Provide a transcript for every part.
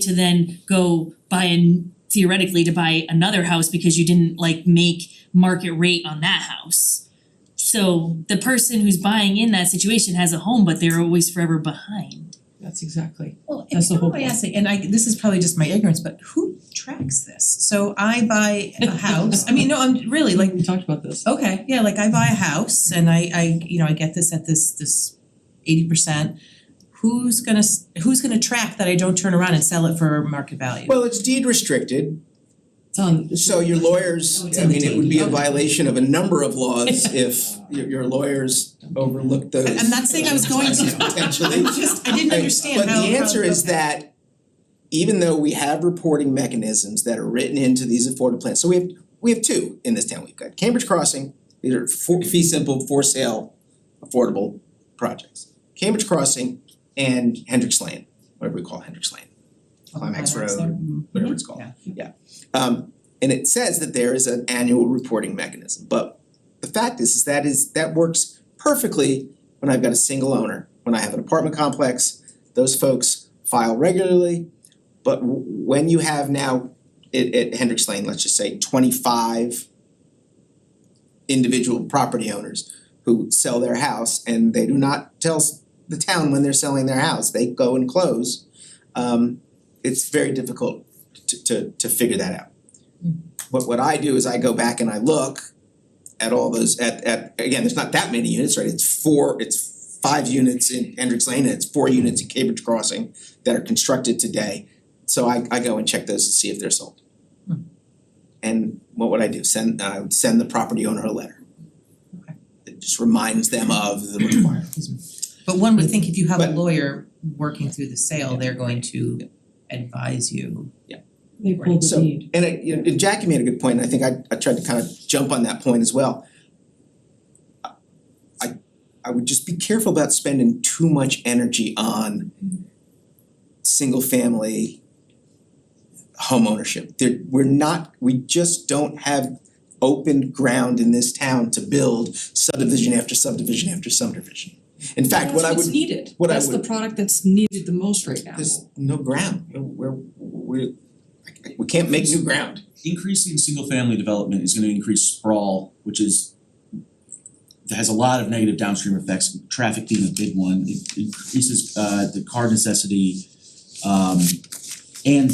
to then go buy an theoretically to buy another house because you didn't like make market rate on that house. So the person who's buying in that situation has a home, but they're always forever behind. That's exactly. Well, That's the if whole nobody point. asks, and I, this is probably just my ignorance, but who tracks this? So I buy a house, I mean, no, I'm really like, We talked about this. okay, yeah, like I buy a house and I I, you know, I get this at this this eighty percent. Who's gonna, s- who's gonna track that I don't turn around and sell it for market value? Well, it's deed restricted, It's on. so your lawyers, Oh, it's I in the mean, it would be a deed. violation of a number of laws if your your lawyers overlooked those. I'm not saying I was going to. Potentially. I just, I didn't I- understand how. But the how- answer is okay. that even though we have reporting mechanisms that are written into these affordable plans, so we have, we have two in this town, we've got Cambridge Crossing, these are for fee simple for sale affordable projects. Cambridge Crossing and Hendricks Lane, whatever we call Hendricks Lane, Climax Climax Road, there. Mhm. whatever it's called. Um and it says that there is an annual reporting mechanism, but the fact is, is that is that works perfectly when I've got a single owner. When I have an apartment complex, those folks file regularly. But w- when you have now at at Hendricks Lane, let's just say twenty-five individual property owners who sell their house and they do not tell s- the town when they're selling their house, they go and close. Um it's very difficult to to to figure that out. Hmm. What what I do is I go back and I look at all those at at again, there's not that many units, right? It's four, it's five units in Hendricks Lane and it's four units in Cambridge Crossing that are constructed today. So I I go and check those to see if they're sold. Hmm. And what would I do? Send I would send the property owner a letter. Okay. It just reminds them of the requirement. But one would think if you have a But- lawyer working through the sale, they're going to advise you. They pulled the So- deed. And it, you know, and Jackie made a good point, and I think I I tried to kind of jump on that point as well. I I would just be careful about spending too much energy on single family home ownership. There, we're not, we just don't have open ground in this town to build subdivision after subdivision after subdivision. In fact, what I That's would what's needed. what I That's the would- product that's needed the most right now. there's no ground, we're we're we can't make new ground. increasing single family development is gonna increase sprawl, which is that has a lot of negative downstream effects, traffic being a big one, it increases uh the car necessity. Um and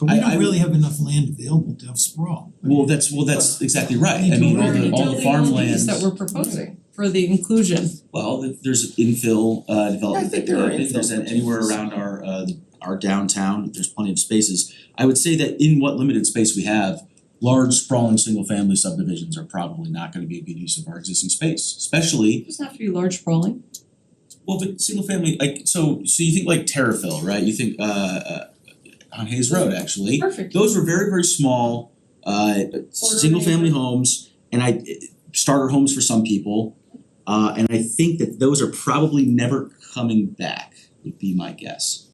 But I- we I- don't really have enough land available to have sprawl. I mean, well, that's well, that's exactly right, I mean, all the all the farmland. These that we're proposing for the inclusion. Well, th- there's infill uh I development think that there are uh, if there's infill an- anywhere around opportunities. our uh our downtown, there's plenty of spaces. I would say that in what limited space we have, large sprawling single family subdivisions are probably not gonna be a good use of our existing space, especially It doesn't have to be large sprawling. well, but single family like so so you think like Terrafil, right? You think uh uh on Hayes Road actually. Perfect. Those were very, very small, uh, single family homes and I, starter homes for some people. Uh, and I think that those are probably never coming back, would be my guess.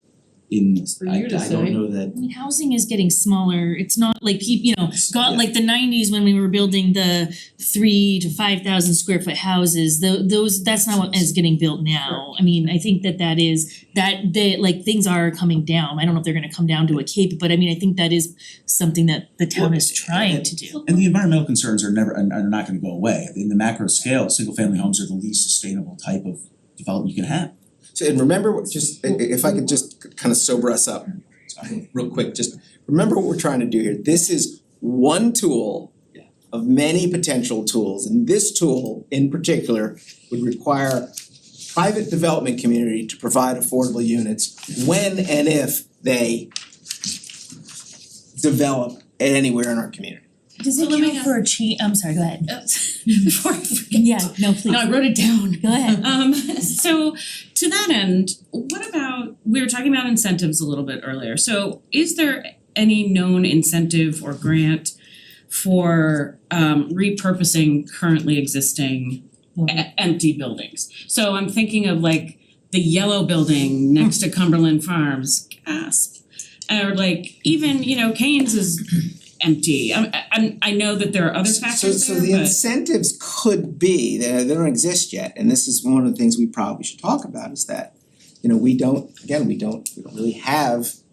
In, That's for I you to I don't say. know that, I mean, housing is getting smaller, it's not like peop- you know, got Yeah. like the nineties when we were building the three to five thousand square foot houses, tho- those, that's not what is getting built now. I mean, I think that that is, that they, like, things are coming down, I don't know if they're gonna come down to a cape, but I mean, I think that is something that the town is trying to do. and the environmental concerns are never, and are not gonna go away. In the macro scale, single family homes are the least sustainable type of development you can have. So and remember what just i- i- if I could just kind of sober us up real quick, just remember what we're trying to do here. This is one tool of many potential tools, and this tool in particular would require private development community to provide affordable units when and if they develop anywhere in our community. Does it count for a change, I'm sorry, go ahead. Uh, before I forget. Yeah, no, please, No, I go wrote it down. ahead. Um, so to that end, what about, we were talking about incentives a little bit earlier. So is there any known incentive or grant for um repurposing currently existing e- empty buildings? So I'm thinking of like the yellow building next to Cumberland Farms, gasp. Or like even, you know, Kane's is empty. I'm I'm I know that there are other factors So there, so but. the incentives could be, they they don't exist yet, and this is one of the things we probably should talk about is that, you know, we don't, again, we don't, we don't really have